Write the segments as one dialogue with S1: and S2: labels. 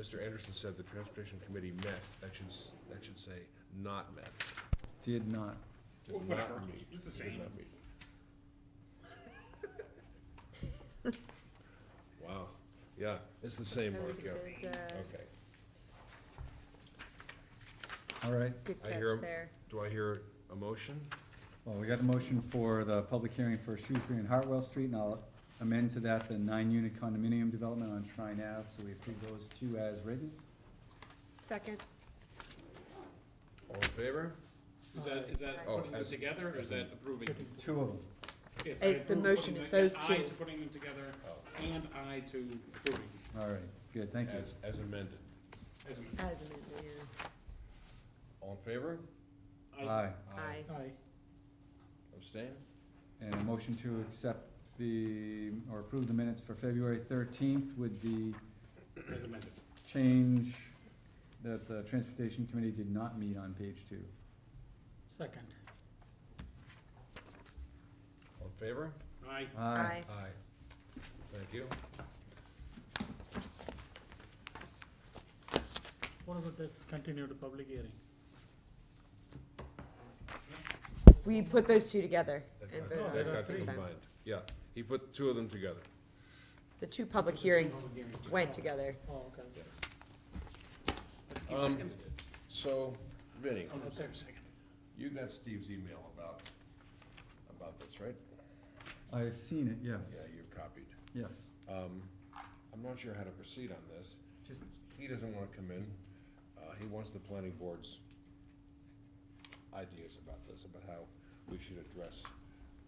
S1: Mr. Anderson said the transportation committee met, that should, s- that should say not met.
S2: Did not.
S1: Did
S3: Well,
S1: not
S3: whatever.
S1: meet.
S3: It's the
S1: Did
S3: same.
S1: not meet. Wow, yeah, it's the same,
S4: That was a
S1: Mark, yeah,
S4: good, uh,
S1: okay.
S2: All right,
S4: good
S1: I hear
S4: catch
S1: 'em.
S4: there.
S1: Do I hear a motion?
S2: well, we got a motion for the public hearing for Shrewsbury and Hartwell Street, and I'll amend to that the nine-unit condominium development on Shrine Ave, so we approve those two as written.
S4: Second,
S1: All in favor?
S3: Is that, is that
S1: Oh,
S3: putting them
S1: as-
S3: together, or is that approving?
S2: Two of them.
S3: Yes,
S4: Uh,
S3: I
S4: the
S3: approve
S4: motion
S3: putting
S4: is those
S3: the- I
S4: two.
S3: to putting them together,
S1: Oh.
S3: and I to approving,
S2: All right, good, thank you.
S1: As, as amended.
S3: as a,
S4: as amended, yeah.
S1: All in favor?
S3: I,
S2: Aye,
S4: Aye.
S1: Abstain?
S2: and a motion to accept the, or approve the minutes for February thirteenth with the
S3: as amended.
S2: change that the Transportation Committee did not meet on page two.
S3: Second.
S1: All in favor?
S3: Aye,
S4: Aye.
S1: Aye. Thank you.
S5: What about this continued public hearing?
S4: We put those two together
S1: That got-
S4: and voted
S5: No,
S4: on
S1: that
S5: there
S4: them
S5: are
S1: got
S5: three.
S4: sometime.
S1: combined. Yeah, he put two of them together.
S4: The two public
S3: Two
S4: hearings
S3: public hearings.
S4: went together.
S5: Oh, okay.
S3: You
S1: Um,
S3: second?
S1: So, Vinnie,
S3: Oh, no, sorry, second.
S1: you got Steve's email about, about this, right?
S2: I've seen it,
S1: Yeah,
S2: yes,
S1: you copied.
S2: yes.
S1: Um, I'm not sure how to proceed on this.
S2: Just,
S1: He doesn't wanna come in, uh, he wants the planning board's ideas about this, about how we should address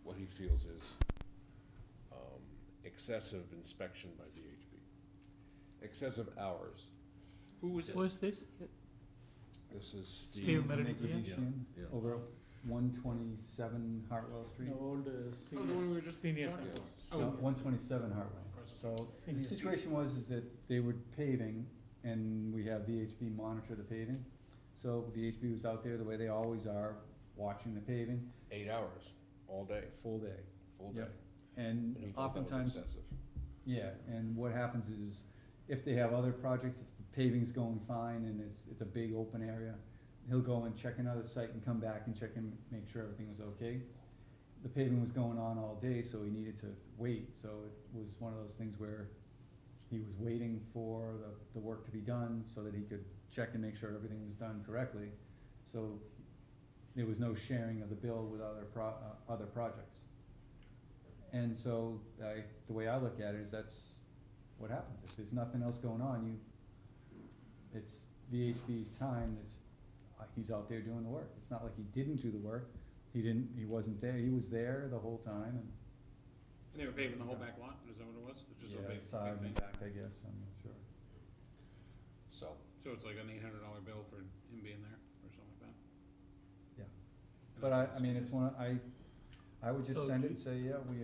S1: what he feels is, um, excessive inspection by VHB. Excessive hours,
S3: Who was it?
S5: Who's this?
S1: this is
S5: Steve
S1: Steve.
S5: Meridian?
S1: Yeah, yeah.
S2: over one twenty-seven Hartwell Street?
S5: The old uh,
S3: Oh, the one we
S5: senior,
S3: were just
S5: senior
S3: talking
S5: center.
S3: Oh,
S2: No, one twenty-seven Hartwell. So the
S5: Senior.
S2: situation was is that they were paving and we have VHB monitor the paving. So VHB was out there the way they always are, watching the paving,
S1: Eight hours, all day,
S2: full day.
S1: full day.
S2: Yep. And
S1: And he thought that was
S2: oftentimes,
S1: excessive.
S2: Yeah, and what happens is, if they have other projects, if the paving's going fine and it's, it's a big open area, he'll go and check another site and come back and check and make sure everything was okay. The paving was going on all day, so he needed to wait, so it was one of those things where he was waiting for the, the work to be done so that he could check and make sure everything was done correctly. So there was no sharing of the bill with other pro, uh, other projects. And so, I, the way I look at it is that's what happens, if there's nothing else going on, you, it's VHB's time, it's, uh, he's out there doing the work, it's not like he didn't do the work, he didn't, he wasn't there, he was there the whole time, and.
S3: And they were paving the whole back lot, is that what it was? It's just a
S2: Yeah, um,
S3: big,
S2: Sides
S3: big
S2: and
S3: thing.
S2: back, I guess, I'm not sure.
S1: So,
S3: So it's like an eight hundred dollar bill for him being there, or something like that?
S2: Yeah. But I, I mean, it's one, I, I would just
S5: So
S2: send
S5: do
S2: it and say, yeah, we,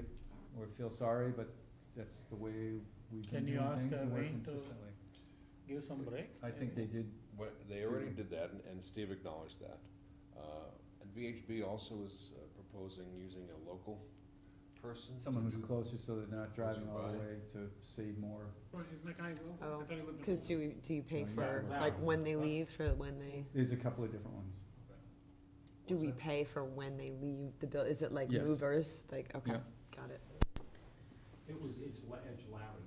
S2: we feel sorry, but that's the way we've been
S5: Can you
S2: doing
S5: ask,
S2: things
S5: uh,
S2: and we're
S5: Wayne to-
S2: consistently.
S5: Give some break.
S2: I think they did,
S1: Well, they already did that, and- and Steve acknowledged that. Uh, And VHB also is uh, proposing using a local person. to
S2: someone who's
S1: do-
S2: closer so they're not driving all the
S1: by.
S2: way to save more
S3: Right, isn't that guy
S4: Oh,
S3: local? I thought he lived in
S4: Cause
S3: Holton.
S4: do, we- do you pay
S2: No, you
S4: for,
S2: said
S4: like,
S5: that.
S4: when they leave, for when they,
S2: There's a couple of different ones.
S4: do
S2: What's
S4: we
S2: that?
S4: pay for when they leave the bill? Is it like
S2: Yes.
S4: movers? Like, okay,
S2: Yeah.
S4: got it.
S6: It was, it's La- it's Larry.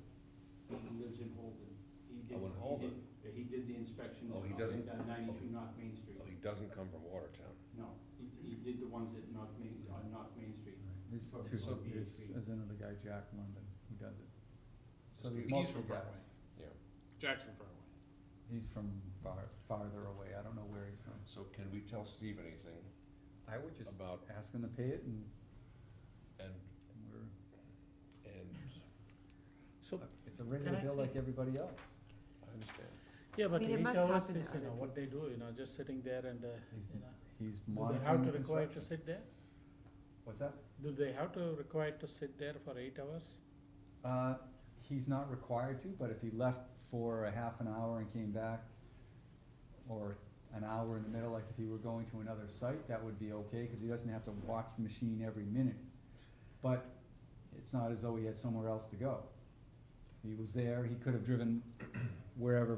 S6: He lives in Holden. He
S1: Oh,
S6: did-
S1: in
S6: he did-
S1: Holden.
S6: yeah, He did the inspections.
S1: Oh, he
S6: up
S1: doesn't-
S6: at Ninety-two North Main Street.
S1: Well, He doesn't come from Watertown.
S6: No, he, he did the ones at North Main, on North Main Street.
S2: There's
S6: So-
S2: two,
S6: so
S2: there's,
S6: VHB.
S2: there's another guy, Jack London, who does it. So there's
S3: He's
S2: multiple
S3: from
S2: guys.
S3: Broadway. Jackson Farway.
S2: He's from far, farther away, I don't know where he's from.
S1: So can we tell Steve anything
S2: I would just
S1: about,
S2: ask him to pay it and,
S1: and,
S2: and we're,
S1: and,
S5: So,
S2: it's a regular
S5: I
S2: bill
S5: say-
S2: like everybody else.
S1: I understand.
S5: yeah, but
S4: mean, it
S5: eight
S4: must
S5: hours
S4: happen
S5: is,
S4: to
S5: you know,
S4: other
S5: what they do, you know, just sitting there and, uh,
S2: He's
S5: you know.
S2: He's
S5: Do they have
S2: monitoring
S5: to
S2: the
S5: require to
S2: construction.
S5: sit there?
S2: What's that?
S5: Do they have to require to sit there for eight hours?
S2: Uh, he's not required to, but if he left for a half an hour and came back, or an hour in the middle, like if he were going to another site, that would be okay, cause he doesn't have to watch the machine every minute. But it's not as though he had somewhere else to go. He was there, he could have driven wherever